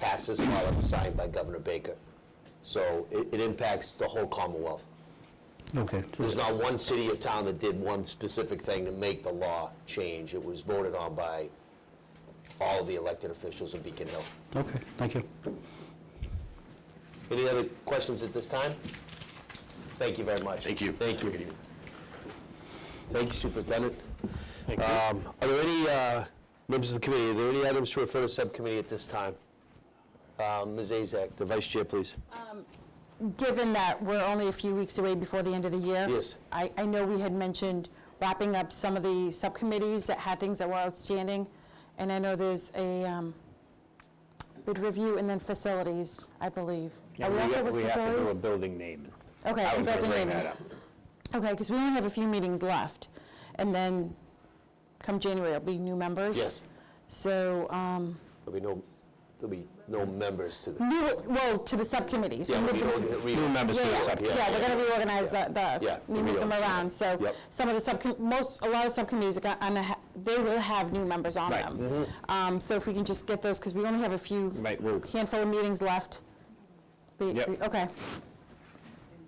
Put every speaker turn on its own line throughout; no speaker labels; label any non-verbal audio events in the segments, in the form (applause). passed this law that was signed by Governor Baker. So it, it impacts the whole Commonwealth.
Okay,
There's not one city or town that did one specific thing to make the law change. It was voted on by all the elected officials in Beacon Hill.
okay, thank you.
Any other questions at this time? Thank you very much.
Thank you.
Thank you. Thank you, Superintendent. Um, Are there any, uh, members of the committee, are there any items to refer to subcommittee at this time? Um, Ms. Azak, the vice chair, please.
Given that we're only a few weeks away before the end of the year.
Yes.
I, I know we had mentioned wrapping up some of the subcommittees that had things that were outstanding. And I know there's a um, bid review and then facilities, I believe. Are we also with
We have to do a
facilities?
building naming.
Okay,
I was going to
building
bring
naming.
that up.
Okay, because we only have a few meetings left. And then come January, it'll be new members.
Yes.
So, um,
There'll be no, there'll be no members to the.
new- well, to the subcommittees.
Yeah,
we
we'll
moved
be
them
organ- we-
New members to
Yeah,
the
yeah,
subcommittee.
yeah, we're going to reorganize the,
Yeah,
the,
we
we move them
reorganize.
around, so
Yep.
some of the subcom, most, a lot of subcommittees are gonna, ha- uh, they will have new members on
Right.
them. Um, So if we can just get those, because we only have a few
Right, we'll-
handful of meetings left. We-
Yep.
we- Okay.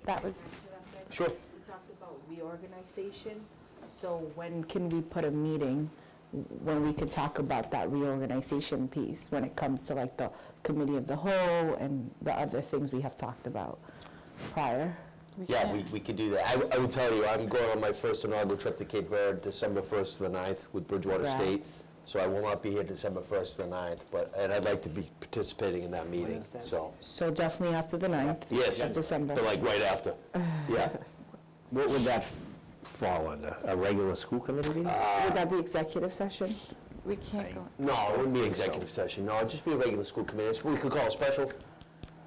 That was,
Sure.
We talked about reorganization, so when can we put a meeting when we could talk about that reorganization piece, when it comes to like the committee of the whole and the other things we have talked about prior?
Yeah, we, we could do that. I, w- I will tell you, I'm going on my first inaugural trip to Cape Verde, December 1st to the 9th with Bridgewater State.
Congrats.
So I will not be here December 1st to the 9th, but, and I'd like to be participating in that meeting, so.
So definitely after the 9th.
Yes.
Of December.
But like right after. Yeah.
What would that f- fall under? A regular school committee meeting?
Would that be executive session?
we can't go,
No, it wouldn't be executive session. No, it'd just be a regular school committee. It's- We could call a special.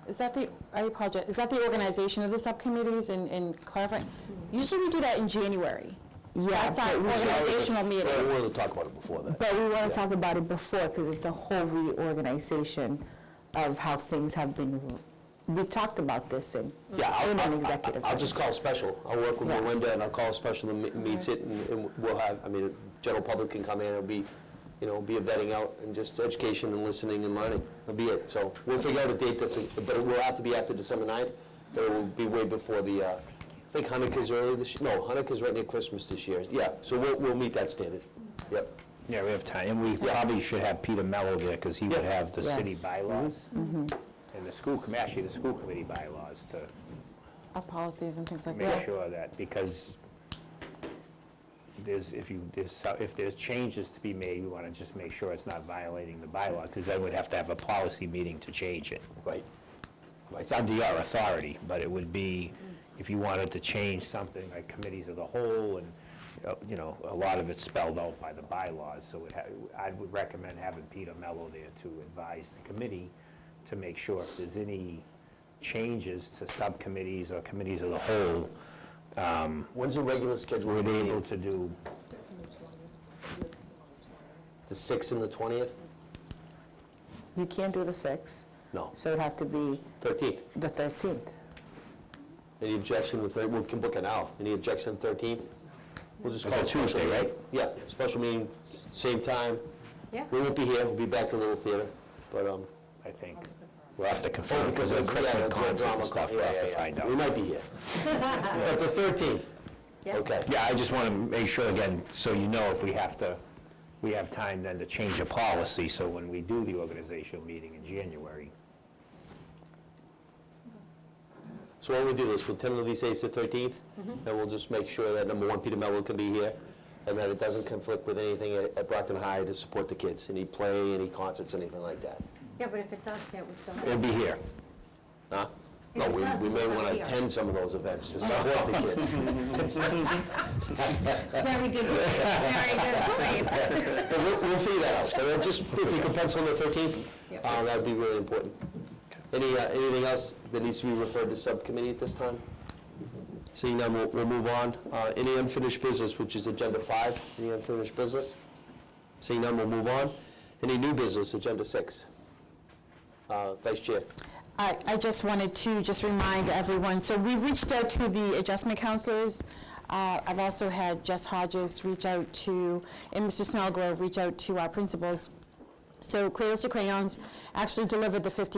is that the, I apologize, is that the organization of the subcommittees and- and clarifying? Usually we do that in January.
Yeah,
That's our
but we-
organizational meeting.
Well, We'll talk about it before then.
But we want to talk about it before, because it's a whole reorganization of how things have been, we talked about this in,
Yeah, I'll-
in an
I'll-
executive
I'll
session.
just call a special. I'll work with
Yeah.
Melinda, and I'll call a special that me- meets it, and and we'll have, I mean, general public can come in, it'll be, you know, it'll be a vetting out, and just education and listening and learning, that'll be it. So we'll figure out a date, that's, but it will have to be after December 9th, but it will be way before the, uh, I think Hanukkah's early this, no, Hanukkah's right near Christmas this year. Yeah, so we'll, we'll meet that standard. Yep.
Yeah, we have time, and we probably should have Peter Mello there, because he would
Yeah.
have the city
Yes.
bylaws, and the school, com- actually, the school committee bylaws, to
Our policies and things like that.
make sure that, because there's, if you, there's, so- if there's changes to be made, we want to just make sure it's not violating the bylaw, because then we'd have to have a policy meeting to change it.
Right.
It's under our authority, but it would be, if you wanted to change something, like committees of the whole, and, uh, you know, a lot of it's spelled out by the bylaws, so it ha- I would recommend having Peter Mello there to advise the committee to make sure if there's any changes to subcommittees or committees of the whole,
When's the regular schedule?
we're able
meeting?
to do,
The 6th and the 20th?
You can't do the 6th,
No,
so it'd have to be
13th.
the 13th.
Any objection to third, we can book an hour. Any objection to 13th? We'll just
It's
call
a
it special
Tuesday,
meeting.
right?
Yeah, special meeting, s- same time.
Yeah.
We won't be here, we'll be back to Little Theater, but, um...
I think, we'll have to confirm, because of the
yeah,
Christmas
the
concert
drama
and stuff,
con-
we'll
yeah,
have to
yeah, yeah.
find out.
We might be here. But the 13th? Okay.
Yeah, I just want to make sure again, so you know if we have to, we have time then to change a policy, so when we do the organizational meeting in January.
So what we'll do is, we'll tentatively say it's the 13th,
Mm-hmm.
and we'll just make sure that, number one, Peter Mello can be here, and that it doesn't conflict with anything at at Brockton High to support the kids, any play, any concerts, anything like that.
Yeah, but if it does, can't we still have?
It'll be here.
Huh?
If
No,
it
we,
does,
we may
we'll
want
have
to
beer.
attend some of those events to support the
(laughs)
kids.
Very good, very
(laughs)
good.
(laughs)
point.
But we'll, we'll figure that out, but just, if you could pencil in the thirteenth,
Yep.
uh, that'd be really important. Any, uh, anything else that needs to be referred to subcommittee at this time? Seeing none, we'll, we'll move on. Uh, any unfinished business, which is agenda five, any unfinished business? Seeing none, we'll move on. Any new business, agenda six? Uh, Vice Chair,
I, I just wanted to just remind everyone, so we've reached out to the adjustment counselors. Uh, I've also had Jess Hodges reach out to, and Mr. Snellgrove reach out to our principals So Cradles to Crayons actually delivered the 50